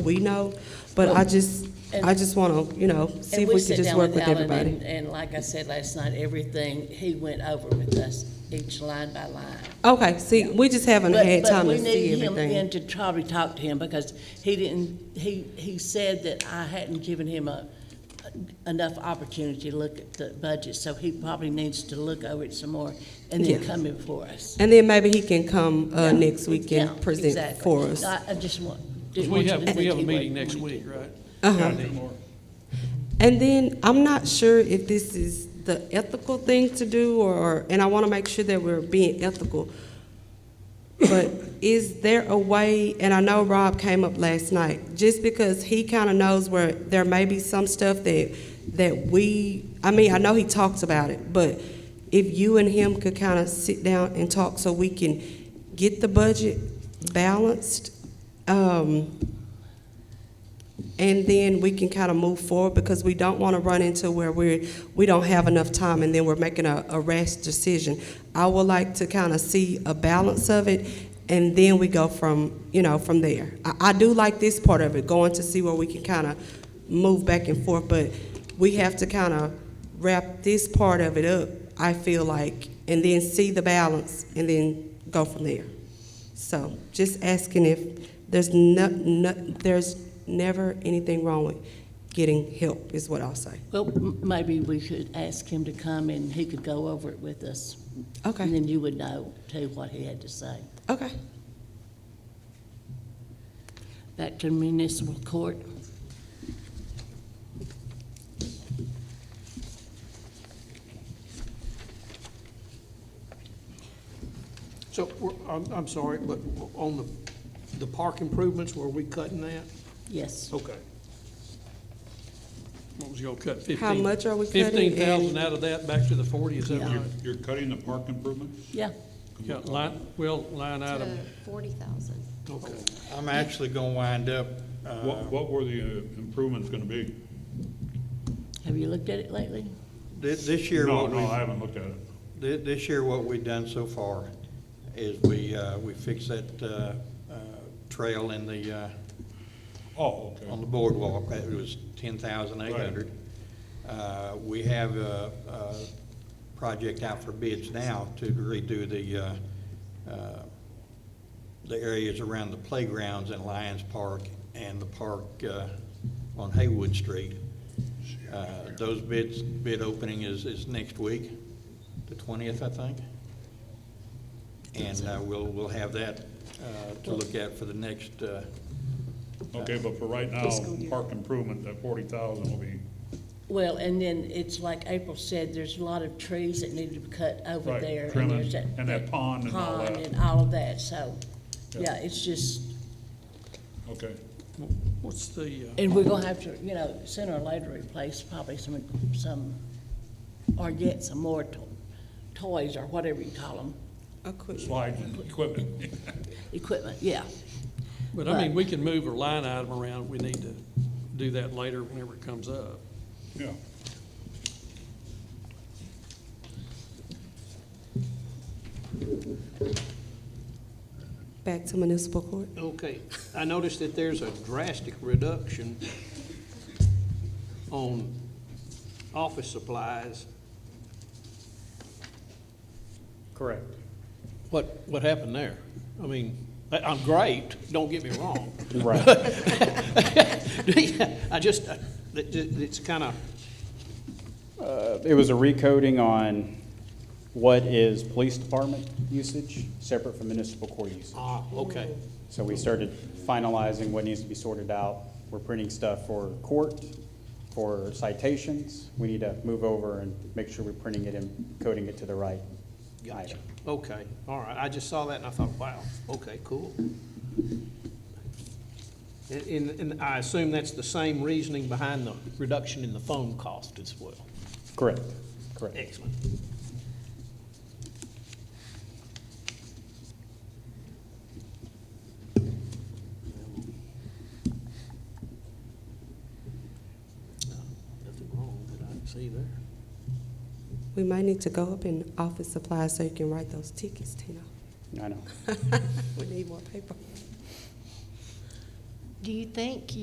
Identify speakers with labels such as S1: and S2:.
S1: we know, but I just, I just want to, you know, see if we
S2: sit
S1: could just
S2: down
S1: work with
S2: Alan, and-
S1: everybody.
S2: And like I said last night, everything, he went over with us, each line by line.
S1: Okay, see, we just haven't
S2: But-
S1: had
S2: but
S1: time
S2: we
S1: to see
S2: need him then
S1: everything.
S2: To probably talk to him, because he didn't, he, he said that I hadn't given him a, enough opportunity to look at the budget, so he probably needs to look over it some more, and then
S1: Yeah.
S2: come in for us.
S1: And then maybe he can come uh, next week
S2: Yeah,
S1: and present
S2: exactly.
S1: for us.
S2: I, I just want,
S3: Because
S2: didn't
S3: we
S2: want you to
S3: have,
S2: think
S3: we have a
S2: he wasn't
S3: meeting next
S2: wanting to.
S3: week, right?
S1: Uh-huh.
S3: Anymore.
S1: And then, I'm not sure if this is the ethical thing to do, or, and I want to make sure that we're being ethical. But is there a way, and I know Rob came up last night, just because he kind of knows where there may be some stuff that, that we, I mean, I know he talks about it, but if you and him could kind of sit down and talk so we can get the budget balanced, um, and then we can kind of move forward because we don't want to run into where we're, we don't have enough time and then we're making a, a rash decision. I would like to kind of see a balance of it and then we go from, you know, from there. I, I do like this part of it, going to see where we can kind of move back and forth, but we have to kind of wrap this part of it up, I feel like, and then see the balance and then go from there. So just asking if there's no, no, there's never anything wrong with getting help is what I'll say.
S2: Well, m- maybe we should ask him to come and he could go over it with us.
S1: Okay.
S2: And then you would know, too, what he had to say.
S1: Okay.
S2: Back to municipal court.
S3: So, we're- I'm, I'm sorry, but on the, the park improvements, were we cutting that?
S2: Yes.
S3: Okay. What was y'all cut, fifteen?
S1: much are we cutting
S3: Fifteen
S1: and-
S3: thousand out of that, back to the forty, is that
S2: Yeah.
S3: right?
S4: You're cutting the park improvements?
S2: Yeah.
S3: Yeah, line, well, line item,
S5: forty thousand.
S3: okay.
S6: I'm actually gonna wind up,
S4: What,
S6: uh,
S4: what were the uh, improvements gonna be?
S2: Have you looked at it lately?
S6: thi- this year,
S4: No,
S6: what
S4: no, I
S6: we,
S4: haven't looked at it.
S6: this year, what we've done so far is we, uh, we fixed that, uh, uh, trail in the, uh,
S4: Oh,
S6: on
S4: okay.
S6: the boardwalk, that was ten thousand eight hundred. Uh, we have a, a project out for bids now to redo the, uh, uh, the areas around the playgrounds in Lions Park and the park, uh, on Haywood Street. Uh, those bids, bid opening is, is next week, the twentieth, I think. And, uh, we'll, we'll have that, uh, to look at for the next, uh,
S4: Okay, but for right now, park improvement, that forty thousand will be,
S2: Well, and then it's like April said, there's a lot of trees that need to be cut over
S4: Right,
S2: there.
S4: trimming,
S2: there's
S4: and that pond and all
S2: pond
S4: that.
S2: and all of that, so,
S4: Yeah.
S2: yeah, it's just,
S4: okay.
S3: What's the, uh,
S2: and we're gonna have to, you know, sooner or later replace probably some, some, or get some more to- toys or whatever you call them,
S4: Slides and equipment.
S2: equipment, yeah.
S3: but I mean, we can move a line item around, we need to do that later whenever it comes up.
S4: Yeah.
S1: Back to municipal court.
S7: Okay, I noticed that there's a drastic reduction on office supplies.
S8: Correct.
S7: What, what happened there? I mean, I- I'm great, don't get me wrong.
S8: Right.
S7: I just, I- it- it- it's kind of,
S8: Uh, It was a recoding on what is police department usage, separate from municipal court usage.
S7: ah, okay,
S8: So we started finalizing what needs to be sorted out. We're printing stuff for court, for citations. We need to move over and make sure we're printing it and coding it to the right
S7: gotcha,
S8: item.
S7: okay, all right. I just saw that and I thought, wow, okay, cool. And- And, and I assume that's the same reasoning behind the reduction in the phone cost as well.
S8: Correct, correct.
S7: Excellent. Nothing wrong that I can see there.
S1: We might need to go up in office supplies so you can write those tickets, Tina.
S8: I know.
S1: We need more paper.
S5: Do you think